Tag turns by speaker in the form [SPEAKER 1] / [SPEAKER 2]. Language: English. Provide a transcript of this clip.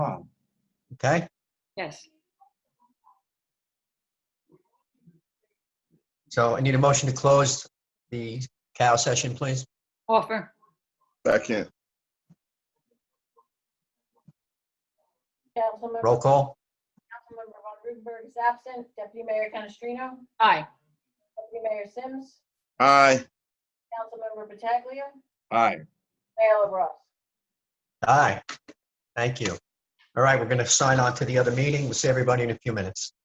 [SPEAKER 1] com. Okay?
[SPEAKER 2] Yes,
[SPEAKER 1] So I need a motion to close the Cal session, please.
[SPEAKER 2] offer,
[SPEAKER 3] Second,
[SPEAKER 4] Councilmember,
[SPEAKER 1] Roll call?
[SPEAKER 4] Councilmember Von Rudenberg is absent. Deputy Mayor Canestrino,
[SPEAKER 2] aye,
[SPEAKER 4] Deputy Mayor Sims,
[SPEAKER 3] aye.
[SPEAKER 4] Councilmember Pataglia,
[SPEAKER 3] Aye.
[SPEAKER 4] Mayor LaBrus.
[SPEAKER 1] Aye. Thank you. All right, we're going to sign on to the other meeting. We'll see everybody in a few minutes.